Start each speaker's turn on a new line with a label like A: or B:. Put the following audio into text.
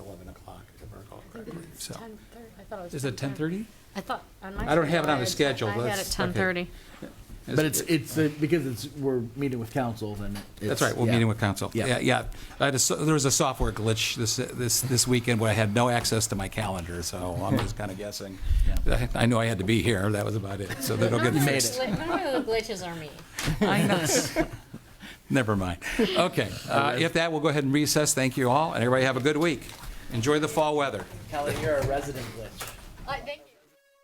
A: so.
B: 10:30. I thought it was
A: Is it
B: 10:30.
A: 10:30?
B: I thought, on my.
A: I don't have it
B: schedule,
A: on the
B: I
A: schedule,
B: had- I had
A: that's-
B: it 10:30.
C: But it's, it's, uh, because it's, we're meeting with council, then it's.
A: That's right, we're
C: yeah.
A: meeting with council.
C: Yeah.
A: Yeah, yeah. I had a so- There was a software glitch this, this, this weekend where I had no access to my calendar, so I'm just kind of guessing. I I knew I had to be here, that was about it, so that'll get
B: None of
C: made
A: fixed.
B: the gli- None of the glitches are me.
A: I know. Never mind. Okay, uh, if that, we'll go ahead and recess. Thank you all, and everybody have a good week. Enjoy the fall weather.
D: Kelly, you're a resident glitch.
B: I think-